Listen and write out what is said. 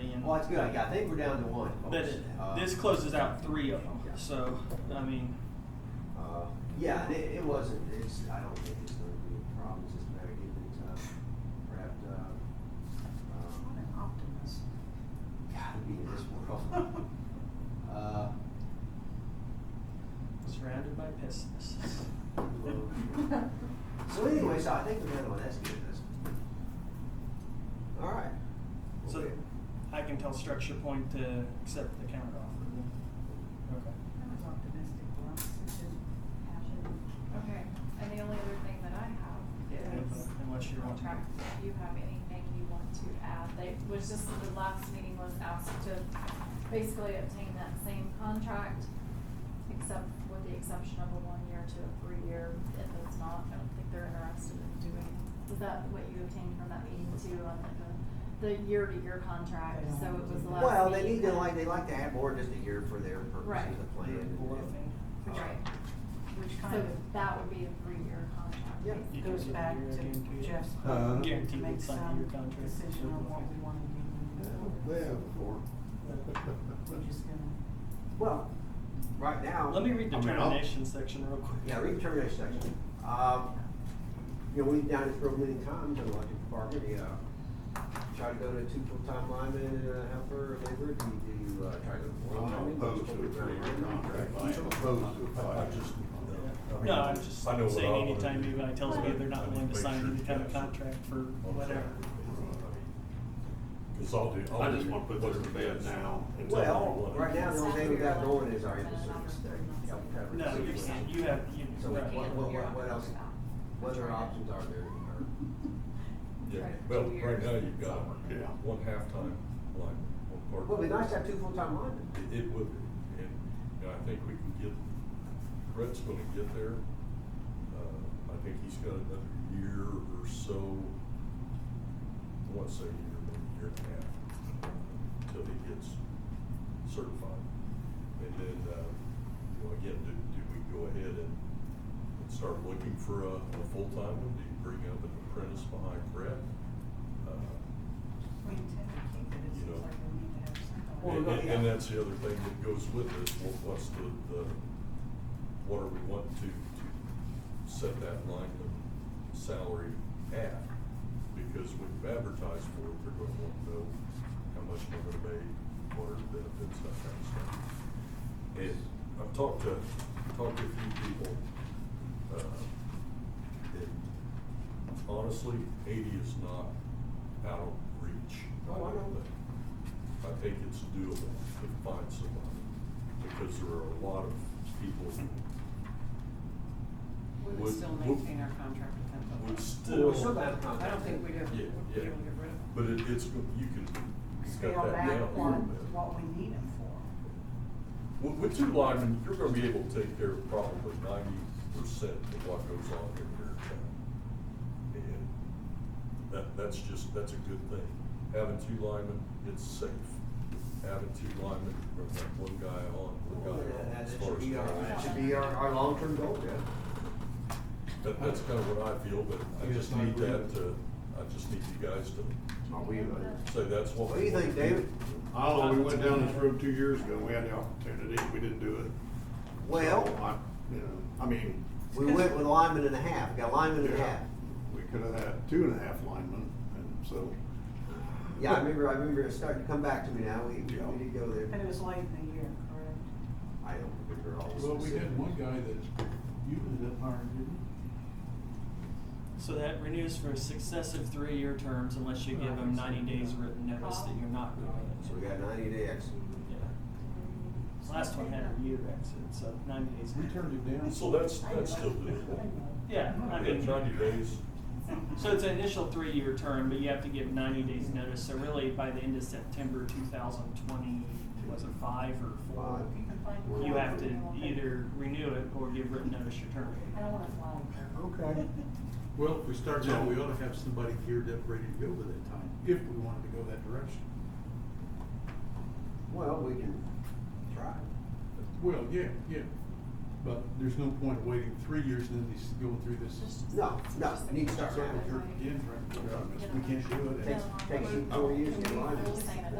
and Well, that's good. I, I think we're down to one. but folks. it- Uh, this closes out three of them. yeah. So I mean, Uh, Yeah, and it, it wasn't, it's, I don't think it's gonna be a problem, it's just a matter of getting it, uh, wrapped up. What Um, an optimist. Gotta be in this world. Uh, surrounded by pessimists. well, So anyway, so I think we're down to one, that's good, that's. All right. So- Okay. I can tell structure point to accept the counter offer. Okay. That was optimistic, Ross. It just happened. Okay, and the only other thing that I have is Unless you want to. contracts, if you have anything you want to add, they, was just the last meeting was asked to basically obtain that same contract, except with the exception of a one-year to a three-year, if it's not, I don't think they're interested in doing. Was that what you obtained from that meeting too, on like the, the year-to-year contract, so it was the last meeting? Well, they need to that- like, they like to have more just a year for their Right. purposes of plan. and- Board thing. Right, Which kind so of that would be a three-year contract. Yeah. You can goes do a back year again, too. to Jeff's. Uh, point Guaranteed To make it's not in your some contract. decision on what we want to do. Yeah, moving forward. we have before. We're just gonna. Well, right now. Let me read the I mean, I'll- termination section real quick. Yeah, read the termination section. Um, you know, we've done this real many times in the electric department, you, uh, try to go to two full-time linemen and a uh, helper or laborer, do you, do you, uh, try to go Well, full-time? I'm opposed to a three-year contract. I'm opposed to a five. Just, Yeah. No, I'm just I know what I saying wanna anytime do. anybody tells me they're not willing to sign any kind of contract for whatever. Cause I'll do. I just wanna put this to bed now and tell them Well, what. right now, the only thing we got going is our inter-service thing. Yeah, we covered No, the you're situation. saying, you have, you, So right. what, what, what, what else, what other Right. options are there? Or- Yeah, well, right now you've got one halftime line, one part. Well, it'd be nice to have two full-time linemen. It, it would, be, and, you know, I think we can get, Brett's gonna get there. Uh, I think he's got another year or so, I want to say a year, maybe a year and a half, uh, till he gets certified. And then, uh, you know, again, do, do we go ahead and, and start looking for a, a full-time one? Do you bring up an apprentice behind Brett? Uh, We intend to keep it, it You seems know. like we need to have something. Well, and, no, and- yeah. and that's the other thing that goes with this, what, what's the, the, what are we wanting to, to set that lineman salary at? Because when you advertise for it, they're gonna want to know how much they're gonna pay, what are the benefits, that kind of stuff. And I've talked to, talked to a few people, uh, and honestly, eighty is not out of reach. Oh, I don't know. think. I think it's doable to find somebody, because there are a lot of people We would- would still would- maintain our contract with them. would Well, we still still. got a contract. I don't think we'd Yeah, have, we'd be yeah, able to get rid of them. but it, it's, you can cut Scale that back down a little on bit. what we need them for. With, with two linemen, you're gonna be able to take care of probably ninety percent of what goes on in your town. And that, that's just, that's a good thing. Having two linemen, it's safe. Having two linemen, you're gonna have one guy on, Well, one guy that- off. That as that far should as be our, that guys. should be our, our long-term goal, yeah. That, that's kind of what I feel, but I Yes, just I need agree. that to, I just need you guys to Not uh, we, but- say that's what. What do you we think, want to do. David? Oh, we went down this road two years ago, we had the opportunity, we didn't do it. Well- So, I, you know, I mean. We went with lineman and a half, we got lineman and a yeah, half. We could have had two and a half linemen, and so. Yeah, I remember, I remember it started to come back to me now, we, we we did go there. And it was late in the year, correct? I don't remember all the Well, we specifics. had one guy that you ended up hiring, didn't So that renews for successive three-year terms unless you give them ninety days written notice that you're not So we renewing. got ninety days. Yeah. Last one had a year exit, so ninety days. you? We turned him down. So that's, that's still doable. Yeah, I Yeah, mean. ninety days. So it's an initial three-year term, but you have to give ninety days notice, so really by the end of September two thousand twenty, was it five or four? Five. You have to either renew it or give written notice you're terminating. I don't wanna fly. Okay. Well, if we start now, we ought to have somebody geared up, ready to go by that time, if we wanted to go that direction. Well, we can try. Well, yeah, yeah, but there's no point waiting three years and then he's going through this No, no, it needs to start circle now. jerk again, right? We can't do it. Oh. Takes, takes you four years to get linemen.